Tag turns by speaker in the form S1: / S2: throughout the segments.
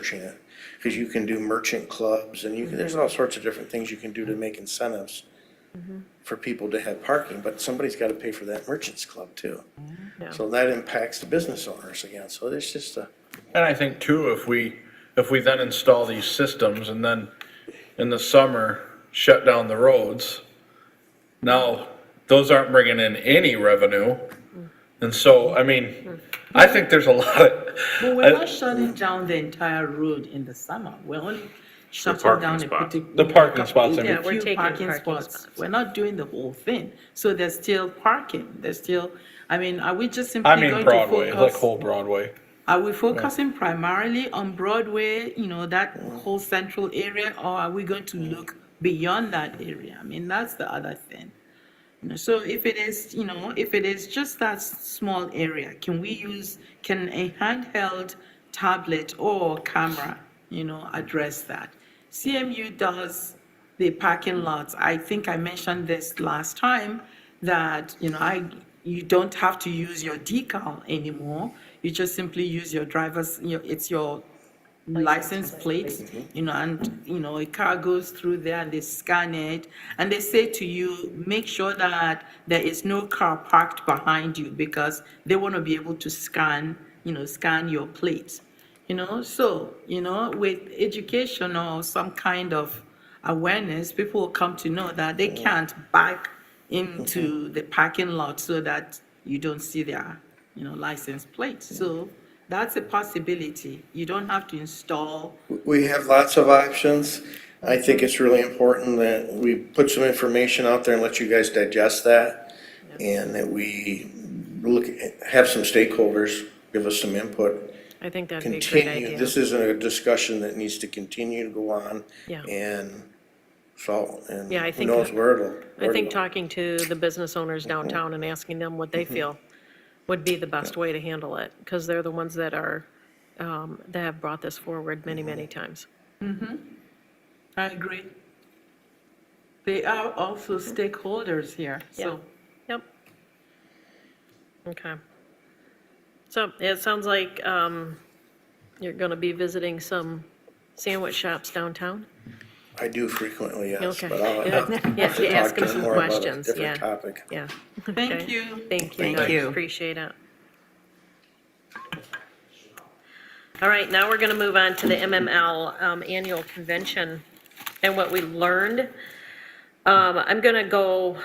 S1: merging it. Because you can do merchant clubs and you can, there's all sorts of different things you can do to make incentives for people to have parking, but somebody's got to pay for that merchants club too.
S2: Yeah.
S1: So that impacts the business owners again. So there's just a,
S3: And I think too, if we, if we then install these systems and then in the summer shut down the roads, now those aren't bringing in any revenue. And so, I mean, I think there's a lot of,
S4: But we're
S3: I-
S4: not shutting down the entire road in the summer. We're only shutting
S5: parking
S4: down a
S5: spot.
S4: particular.
S3: The parking spots, I mean.
S4: Yeah, we're taking parking spots. We're not doing the whole thing. So there's still parking. There's still, I mean, are we just simply
S3: I
S4: going
S3: mean
S4: to
S3: Broadway, like
S4: focus?
S3: whole Broadway.
S4: Are we focusing primarily on Broadway, you know, that whole central area? Or are we going to look beyond that area? I mean, that's the other thing. You know, So if it is, you know, if it is just that s- small area, can we use, can a handheld tablet or camera, you know, address that? CMU does the parking lots. I think I mentioned this last time that, you know, I, you don't have to use your decal anymore. You just simply use your driver's, your it's your license plates, you know, and, you know, a car goes through there and they scan it, and they say to you, make sure that there is no car parked behind you, because they want to be able to scan, you know, scan your plates. You know, so, you know, with education or some kind of awareness, people will come to know that they can't back into
S5: Mm-hmm.
S4: the parking lot so that you don't see their, you know, license plates. So that's a possibility. You don't have to install.
S1: we have lots of options. I think it's really important that we put some information out there and let you guys digest that. And that we look, at- have some stakeholders give us some input
S2: I think that'd be a great
S1: continue,
S2: idea.
S1: this isn't a discussion that needs to continue to go on.
S2: Yeah.
S1: And so, and
S2: Yeah, I
S1: who
S2: think
S1: knows
S2: that-
S1: where it'll.
S2: I
S1: where
S2: think
S1: it'll-
S2: talking to the business owners
S1: Mm-hmm.
S2: downtown and asking them what they feel would be the best way to handle it, because they're the ones that are, um, that have brought this forward many, many
S1: Mm-hmm.
S2: times.
S4: I agree. They are also
S5: Mm-hmm.
S4: stakeholders here,
S2: Yeah.
S4: so.
S2: Yep. Okay. So it sounds like um, you're going to be visiting some sandwich shops downtown?
S1: I do frequently, yes,
S2: Okay.
S1: but I'll
S2: Yeah.
S1: I'll have
S2: Yeah,
S1: to
S2: to ask
S1: talk to them
S2: them some
S1: more about a
S2: questions, yeah.
S1: different topic.
S2: Yeah.
S4: Thank
S2: Okay.
S4: you.
S2: Thank you.
S1: Thank
S2: guys.
S6: you.
S2: Appreciate it. All right, now we're going to move on to the MML um, Annual Convention and what we learned. Um, I'm going to go,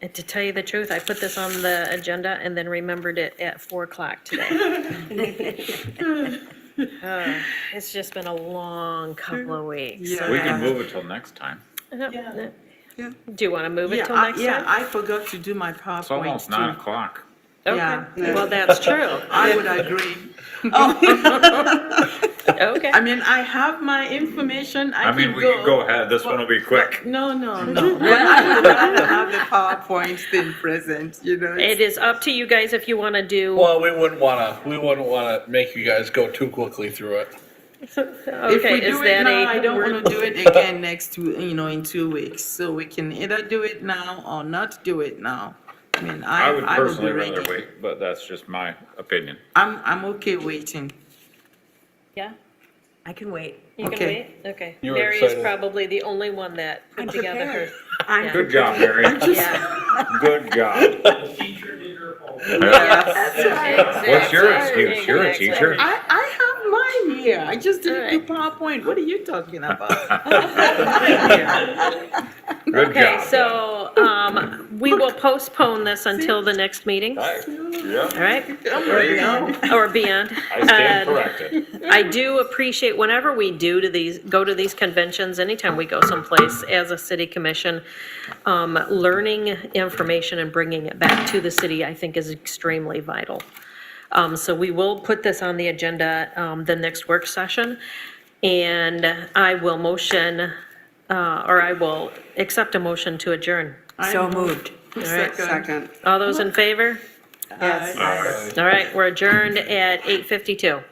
S2: and to tell you the truth, I put this on the agenda and then remembered it at 4 o'clock today. Uh, It's just been a long couple of weeks.
S4: Yeah.
S5: We can move it till next time.
S2: Do
S4: Yeah.
S2: you want to move it
S4: Yeah,
S2: till
S4: I,
S2: next
S4: yeah,
S2: time?
S4: I forgot to do my PowerPoint.
S5: It's almost
S4: too.
S5: nine o'clock.
S4: yeah.
S2: Okay, well, that's true.
S4: I would agree. Oh.
S2: Okay.
S4: I mean, I have my information. I,
S5: I mean, we can go ahead, this one will be quick.
S4: No, no, no. But I would rather have the PowerPoint thing present, you know.
S2: It is up to you guys if you want to do,
S3: Well, we wouldn't wanna, we wouldn't wanna make you guys go too quickly through it.
S4: If we
S2: okay, is
S4: do it
S2: that
S4: now, I
S2: a,
S4: don't want to do it again next, two- you know, in two weeks. So we can either do it now or not do it now. I mean, I,
S5: I would
S4: I will be
S5: personally rather
S4: ready.
S5: wait, but that's just my opinion.
S4: I'm, I'm okay waiting.
S2: yeah,
S6: I can wait.
S2: you can wait?
S4: Okay.
S2: Okay.
S3: You were
S2: Mary is
S3: excited.
S2: probably the only one that
S6: I'm
S2: put together her.
S6: prepared. I'm
S5: Good job, Mary.
S2: Yeah.
S5: Good job.
S4: Yes.
S5: What's your
S2: Exactly,
S5: excuse? You're a
S2: exactly.
S5: teacher.
S4: I, I have mine here. I just didn't do PowerPoint. What are you talking about?
S5: Good
S2: Okay,
S5: job.
S2: so, um, we will postpone this until the next meeting, all
S5: Yeah,
S2: right?
S5: there you go.
S2: Or beyond.
S5: I stand
S4: um,
S2: Uh,
S5: corrected.
S2: I do appreciate, whenever we do to these, go to these conventions, anytime we go someplace as a city commission, um, learning information and bringing it back to the city, I think is extremely vital. Um, so we will put this on the agenda, um, the next work session. And I will motion, uh, or I will accept a motion to adjourn.
S6: So moved.
S4: Second.
S2: All those in favor?
S6: Yes.
S5: All right.
S2: All right, we're adjourned at 8:52.